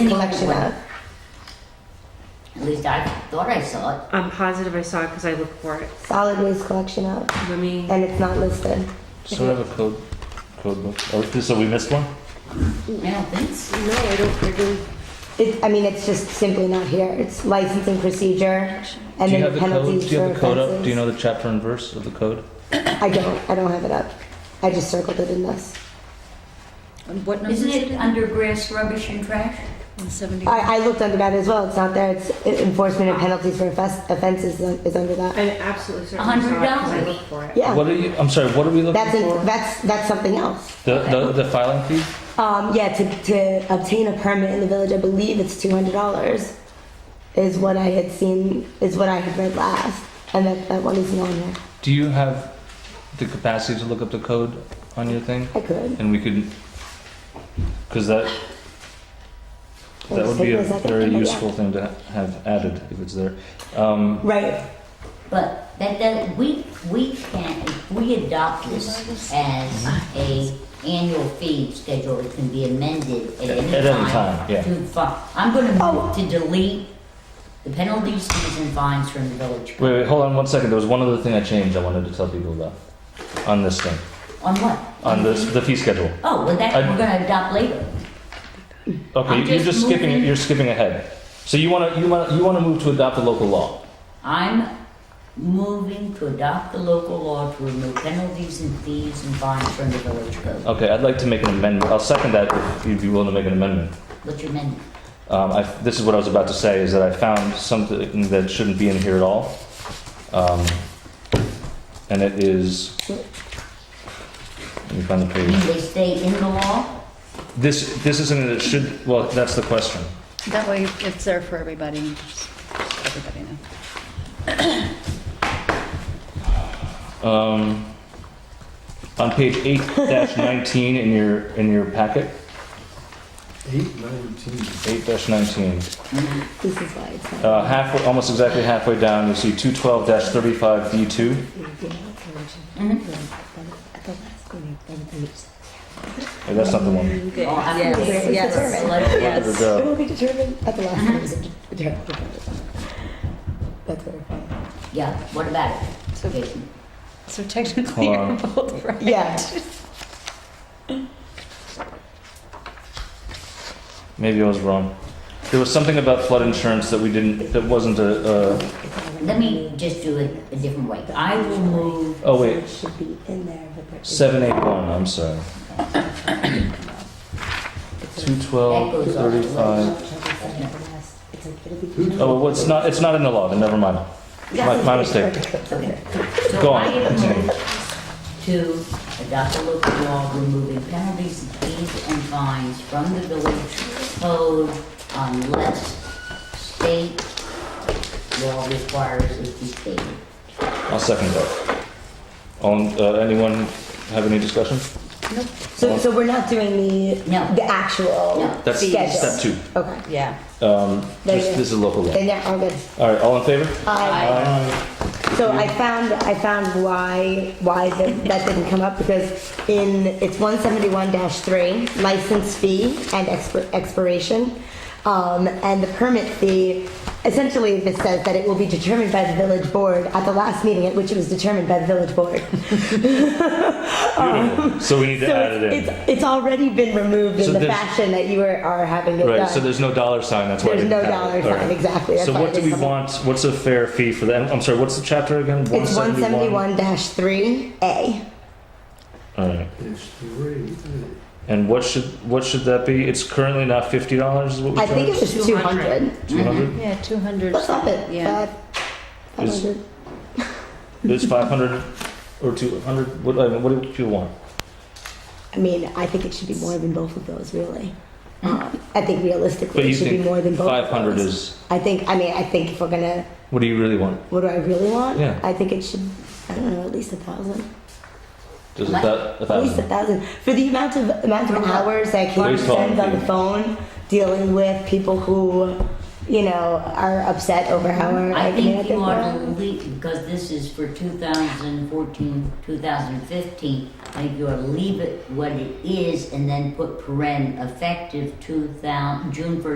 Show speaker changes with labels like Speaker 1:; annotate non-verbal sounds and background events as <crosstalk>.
Speaker 1: recollection of.
Speaker 2: At least I thought I saw it.
Speaker 3: I'm positive I saw it because I looked for it.
Speaker 1: Solid waste collection of,
Speaker 3: Let me.
Speaker 1: and it's not listed.
Speaker 4: So we have a code, code book. Oh, so we missed one?
Speaker 2: I don't think so.
Speaker 3: No, I don't. I don't.
Speaker 1: It, I mean, it's just simply not here. It's licensing procedure and
Speaker 4: Do you
Speaker 1: then
Speaker 4: have
Speaker 1: the
Speaker 4: the code?
Speaker 1: penalties
Speaker 4: Do you
Speaker 1: for
Speaker 4: have the code up? Do you
Speaker 1: offenses.
Speaker 4: know the chapter and verse of the code?
Speaker 1: I don't, I don't have it up. I just circled it in this.
Speaker 5: And What number is
Speaker 2: Isn't
Speaker 5: it?
Speaker 2: it under grass, rubbish, and trash?
Speaker 5: On seventy.
Speaker 1: I, I looked under that as well. It's not there. It's enforcement and penalties for offes- offenses is is under that.
Speaker 3: I'm absolutely certain I saw it because I
Speaker 2: $100.
Speaker 3: looked for it.
Speaker 1: Yeah.
Speaker 4: What are you, I'm sorry, what are we looking
Speaker 1: That's, in-
Speaker 4: for?
Speaker 1: that's, that's something else.
Speaker 4: The, the, the filing fee?
Speaker 1: Um, yeah, to, to obtain a permit in the village, I believe it's two hundred dollars, is what I had seen, is what I had read last, and that, that one isn't on here.
Speaker 4: Do you have the capacity to look up the code on your thing?
Speaker 1: I could.
Speaker 4: And we could, because that,
Speaker 1: I'll
Speaker 4: that
Speaker 1: just
Speaker 4: would be
Speaker 1: take
Speaker 4: a
Speaker 1: my second
Speaker 4: very
Speaker 1: finger, yeah.
Speaker 4: useful thing to have added if it's there. Um,
Speaker 1: Right.
Speaker 2: But that, that, we, we can't, if we adopt this as a annual fee schedule, it can be amended at any time.
Speaker 4: At any time, yeah.
Speaker 2: To fi, I'm gonna
Speaker 1: Oh.
Speaker 2: move to delete the penalties, fees, and fines from the village.
Speaker 4: wait, wait, hold on one second. There was one other thing I changed I wanted to tell people about on this thing,
Speaker 2: On what?
Speaker 4: on this, the fee schedule.
Speaker 2: Oh, well, that,
Speaker 4: I-
Speaker 2: we're gonna adopt later.
Speaker 4: Okay,
Speaker 2: I'm
Speaker 4: you're
Speaker 2: just
Speaker 4: just skipping,
Speaker 2: moving-
Speaker 4: you're skipping ahead. So you want to, you want to, you want to move to adopt the local law.
Speaker 2: I'm moving to adopt the local law to remove penalties and fees and fines from the village code.
Speaker 4: Okay, I'd like to make an amendment. I'll second that if you'd be willing to make an amendment.
Speaker 2: What's your amendment?
Speaker 4: Um, I, this is what I was about to say, is that I found something that shouldn't be in here at all. Um, and it is, let me find the
Speaker 2: I mean,
Speaker 4: page.
Speaker 2: they stay in the law?
Speaker 4: This, this isn't, it should, well, that's the question.
Speaker 5: That way it's there for everybody, just so everybody know.
Speaker 4: Um, on page eight dash nineteen in your, in your packet,
Speaker 6: Eight nineteen.
Speaker 4: eight dash nineteen.
Speaker 1: This is why it's not.
Speaker 4: Uh, halfway, almost exactly halfway down, you'll see two twelve dash thirty-five D two.
Speaker 2: Mm-hmm.
Speaker 4: That's not the one.
Speaker 2: Well, I mean,
Speaker 1: Yes,
Speaker 2: it's-
Speaker 1: yes,
Speaker 2: it's like-
Speaker 4: Where did it go?
Speaker 1: It will be determined at the
Speaker 2: Mm-hmm.
Speaker 1: last meeting. Determined. That's what I found.
Speaker 2: Yeah, what about it?
Speaker 5: So-
Speaker 2: Jason?
Speaker 5: So technically
Speaker 4: Hold
Speaker 5: you're
Speaker 4: on.
Speaker 5: both right.
Speaker 1: Yeah.
Speaker 4: Uh, Maybe I was wrong. There was something about flood insurance that we didn't, that wasn't a, uh,
Speaker 2: Let me just do it a different way. I will move,
Speaker 4: oh wait,
Speaker 1: Should be in there, but there is-
Speaker 4: seven eight one, I'm sorry. Two twelve thirty-five. Oh, well, it's not, it's not in the law, then never mind. My, my mistake.
Speaker 2: so
Speaker 4: Go
Speaker 2: I
Speaker 4: on, continue.
Speaker 2: move to adopt a local law removing penalties, fees, and fines from the village code unless state law requires it be stated.
Speaker 4: I'll second that. On, uh, anyone have any discussion?
Speaker 1: So, so we're not doing the,
Speaker 2: No.
Speaker 1: the actual
Speaker 2: No.
Speaker 4: That's
Speaker 1: schedule?
Speaker 4: step two.
Speaker 1: Okay.
Speaker 5: Yeah.
Speaker 4: Um,
Speaker 1: There you
Speaker 4: this,
Speaker 1: go.
Speaker 4: this is local law.
Speaker 1: Then, yeah, all good.
Speaker 4: All right, all in favor?
Speaker 1: Aye. So I found, I found why, why that, that didn't come up, because in, it's one seventy-one three, license fee and expir- expiration. Um, and the permit fee, essentially this says that it will be determined by the village board at the last meeting at which it was determined by the village board.
Speaker 4: Beautiful. So we need to
Speaker 1: Oh. <laughs> So
Speaker 4: add it
Speaker 1: it's,
Speaker 4: in.
Speaker 1: it's, it's already been removed
Speaker 4: So
Speaker 1: in the
Speaker 4: there's-
Speaker 1: fashion that you are, are having it
Speaker 4: Right, so
Speaker 1: done.
Speaker 4: there's no dollar sign, that's why I
Speaker 1: There's
Speaker 4: didn't
Speaker 1: no
Speaker 4: have
Speaker 1: dollar
Speaker 4: it. All right.
Speaker 1: sign, exactly. That's
Speaker 4: So
Speaker 1: why
Speaker 4: what
Speaker 1: it
Speaker 4: do
Speaker 1: is
Speaker 4: we
Speaker 1: something-
Speaker 4: want, what's a fair fee for that? I'm sorry, what's the chapter again?
Speaker 1: It's one seventy-one three A.
Speaker 4: Alright,
Speaker 6: It's three. eight.
Speaker 4: and what should, what should that be? It's currently not fifty dollars is what we
Speaker 1: I
Speaker 4: charge?
Speaker 1: think it was two
Speaker 3: 200.
Speaker 1: hundred.
Speaker 4: Two hundred?
Speaker 5: Yeah, two hundred.
Speaker 1: Let's up it.
Speaker 5: Yeah.
Speaker 1: Five
Speaker 4: Is-
Speaker 1: hundred.
Speaker 4: It's five hundred or two hundred, what, I mean, what do people want?
Speaker 1: I mean, I think it should be more than both of those, really.
Speaker 2: Hmm.
Speaker 1: Um, I think
Speaker 4: But
Speaker 1: realistically,
Speaker 4: you
Speaker 1: it should be
Speaker 4: think
Speaker 1: more than both.
Speaker 4: Five
Speaker 1: of
Speaker 4: hundred
Speaker 1: those.
Speaker 4: is,
Speaker 1: I think. I mean, I think if we're gonna,
Speaker 4: what do you really want?
Speaker 1: what do I really want?
Speaker 4: Yeah.
Speaker 1: I think it should. I don't know, at least a thousand.
Speaker 4: Does it
Speaker 2: What?
Speaker 4: that, a
Speaker 1: At least a
Speaker 4: thousand?
Speaker 1: thousand for the amount of amount of hours that Katie
Speaker 4: Please
Speaker 1: spends on
Speaker 4: follow
Speaker 1: the
Speaker 4: me.
Speaker 1: phone dealing with people who, you know, are upset over how our.
Speaker 2: I think you
Speaker 1: think
Speaker 2: ought to
Speaker 1: we're-
Speaker 2: leave, because this is for 2014, 2015, I think you ought to leave it what it is and then put paren effective 2000, June 1st,